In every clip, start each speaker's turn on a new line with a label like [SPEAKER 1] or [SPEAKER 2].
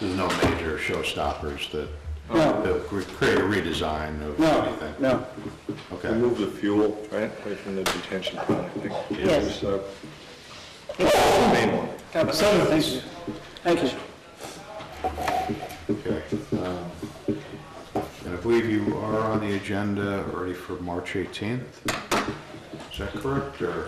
[SPEAKER 1] There's no major showstoppers that,
[SPEAKER 2] No.
[SPEAKER 1] that would create a redesign of
[SPEAKER 2] No,
[SPEAKER 1] anything?
[SPEAKER 2] no.
[SPEAKER 1] Okay,
[SPEAKER 3] Remove the fuel, right, away from the detention pond, I think.
[SPEAKER 2] Yes.
[SPEAKER 3] There's, uh, Main one.
[SPEAKER 2] Thank you. Thank you.
[SPEAKER 1] okay. Um, And I believe you are on the agenda already for March 18th? Is that correct, or?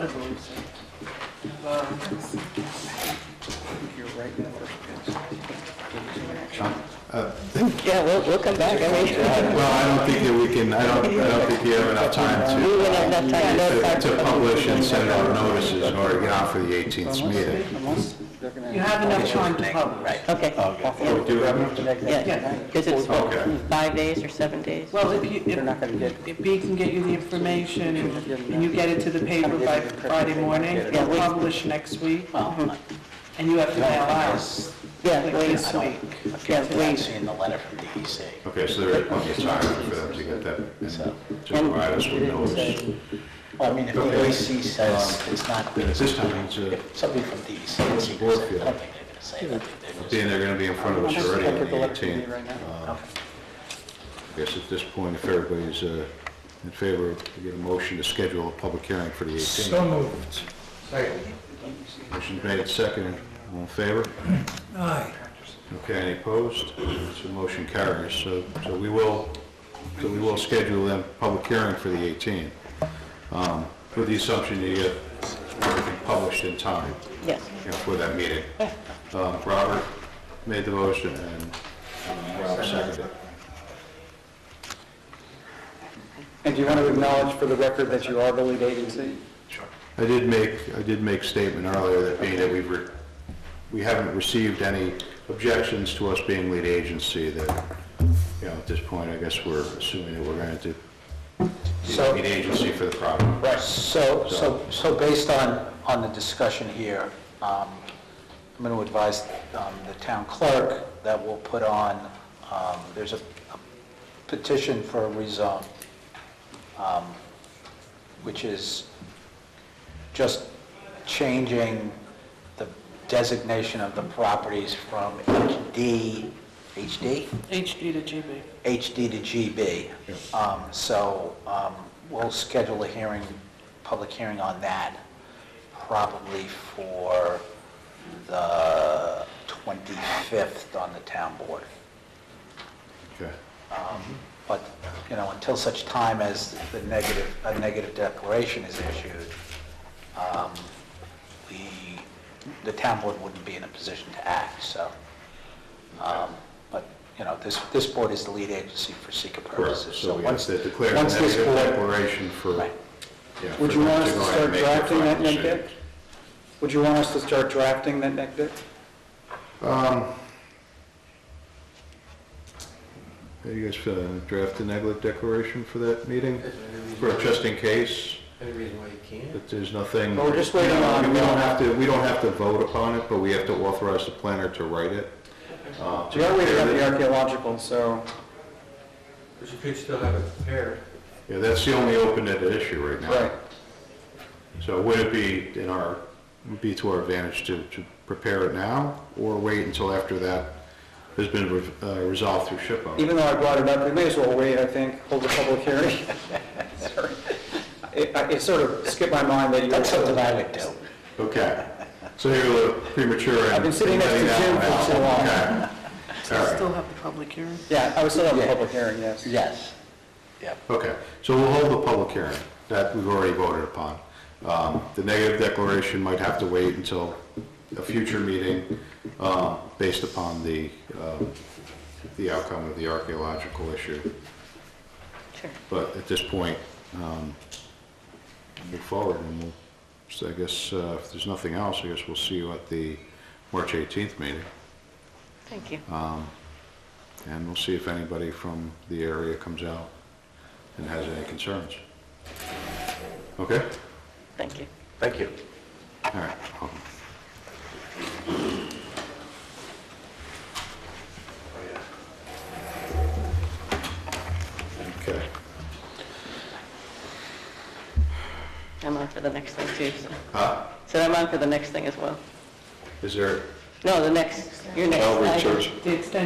[SPEAKER 4] Yeah, we'll, we'll come back, I mean, we
[SPEAKER 1] Well, I don't think that we can, I don't, I don't think you have enough time to,
[SPEAKER 4] wouldn't have enough time, no
[SPEAKER 1] to-
[SPEAKER 4] time.
[SPEAKER 1] to publish and send out notices in order to get on for the 18th meeting.
[SPEAKER 5] You have enough time to publish.
[SPEAKER 4] Okay,
[SPEAKER 1] Oh, we do have enough?
[SPEAKER 4] yeah, because it's what,
[SPEAKER 1] Okay.
[SPEAKER 4] five days or seven days?
[SPEAKER 5] Well, if you, if, if B can get you the information and and you get it to the paper by Friday morning,
[SPEAKER 4] Yeah,
[SPEAKER 5] it'll
[SPEAKER 4] we-
[SPEAKER 5] publish next week, Uh-huh. and you have to mail out
[SPEAKER 4] Yeah,
[SPEAKER 5] like
[SPEAKER 4] we,
[SPEAKER 5] this week.
[SPEAKER 4] yeah,
[SPEAKER 6] I've
[SPEAKER 4] we,
[SPEAKER 6] seen the letter from E DEC.
[SPEAKER 1] Okay, so there is plenty of time for them to get that, and to provide us with notice.
[SPEAKER 6] Well, I mean, if the OEC says it's not,
[SPEAKER 1] At this time, it's a,
[SPEAKER 6] somebody from DEC is going to say, I don't think they're going to say that.
[SPEAKER 1] Being they're gonna be in front of us already on the 18th. um, I guess at this point, if everybody's uh, in favor, we get a motion to schedule a public hearing for the 18th. So moved. Second. Motion's made and seconded. All in favor? Aye. Okay, any opposed? So motion carries. So, so we will, so we will schedule a public hearing for the 18th. um, With the assumption you get everything published in time
[SPEAKER 4] yes.
[SPEAKER 1] you know, for that meeting. Uh, Robert made the motion and um, Rob seconded it.
[SPEAKER 2] And do you want to acknowledge for the record that you are the lead agency?
[SPEAKER 1] I did make, I did make statement earlier that being that we've, re- we haven't received any objections to us being lead agency that, you know, at this point, I guess we're assuming that we're going to be the
[SPEAKER 6] So-
[SPEAKER 1] lead agency for the problem.
[SPEAKER 6] Right, so, so, so based on, on the discussion here, um, I'm going to advise um, the town clerk that we'll put on, um, there's a a petition for a rezone, um, which is just changing the designation of the properties from HD, HD?
[SPEAKER 5] HD to GB.
[SPEAKER 6] HD to GB. Um, So um, we'll schedule a hearing, public hearing on that, probably for the 25th on the town board.
[SPEAKER 1] Okay.
[SPEAKER 6] But, you know, until such time as the negative, a negative declaration is issued, um, we, the town board wouldn't be in a position to act, so. um, But, you know, this, this board is the lead agency for seeker
[SPEAKER 1] Correct.
[SPEAKER 6] purposes.
[SPEAKER 1] So we have
[SPEAKER 6] once
[SPEAKER 1] to declare a
[SPEAKER 6] once this
[SPEAKER 1] negative
[SPEAKER 6] board-
[SPEAKER 1] declaration for,
[SPEAKER 6] Right.
[SPEAKER 1] yeah.
[SPEAKER 2] Would
[SPEAKER 1] for
[SPEAKER 2] you
[SPEAKER 1] them
[SPEAKER 2] want us to
[SPEAKER 1] go ahead and
[SPEAKER 2] start
[SPEAKER 1] make their
[SPEAKER 2] drafting that
[SPEAKER 1] final
[SPEAKER 2] neg deck?
[SPEAKER 1] decisions.
[SPEAKER 2] Would you want us to start drafting that neg deck?
[SPEAKER 1] Um, Are you guys uh, draft the neglect declaration for that meeting? For just in case? Any reason why you can't? That there's nothing.
[SPEAKER 2] Well, we're just waiting on-
[SPEAKER 1] We don't have to, we don't have to vote upon it, but we have to authorize the planner to write it. uh, to
[SPEAKER 2] We are waiting on
[SPEAKER 1] prepare
[SPEAKER 2] the
[SPEAKER 1] it.
[SPEAKER 2] archaeological, so,
[SPEAKER 7] Because you could still have it prepared.
[SPEAKER 1] Yeah, that's the only open-ended issue right now.
[SPEAKER 2] right.
[SPEAKER 1] So would it be in our, would be to our advantage to, to prepare it now or wait until after that has been re- uh, resolved through SHPO?
[SPEAKER 2] Even though I brought it up, we may as well wait, I think, hold the public hearing. Sorry. It, I- it sort of skipped my mind that you
[SPEAKER 6] That's something
[SPEAKER 2] were,
[SPEAKER 6] I would do.
[SPEAKER 1] Okay. So you're a little premature in.
[SPEAKER 2] I've been sitting
[SPEAKER 1] in
[SPEAKER 2] next to
[SPEAKER 1] letting that
[SPEAKER 2] Jim
[SPEAKER 1] one
[SPEAKER 2] for
[SPEAKER 1] out.
[SPEAKER 2] too long.
[SPEAKER 1] Okay. All right.
[SPEAKER 5] Still have the public hearing.
[SPEAKER 2] yeah, I was still on the public hearing, yes.
[SPEAKER 6] Yes. Yep.
[SPEAKER 1] Okay, so we'll hold the public hearing, that we've already voted upon. Um, The negative declaration might have to wait until a future meeting, um, based upon the, um, the outcome of the archaeological issue.
[SPEAKER 4] Sure.
[SPEAKER 1] But at this point, um, move forward, and we'll, so I guess, uh, if there's nothing else, I guess we'll see you at the March 18th meeting,
[SPEAKER 4] Thank you.
[SPEAKER 1] and we'll see if anybody from the area comes out and has any concerns. Okay?
[SPEAKER 4] Thank you.
[SPEAKER 6] Thank you.
[SPEAKER 1] All right. I'll- Okay.
[SPEAKER 4] I'm on for the next thing too, so. So I'm on for the next thing as well.
[SPEAKER 1] Is there,
[SPEAKER 8] No, the next, your next.
[SPEAKER 4] Calvary
[SPEAKER 8] item.
[SPEAKER 4] Church.
[SPEAKER 1] The extension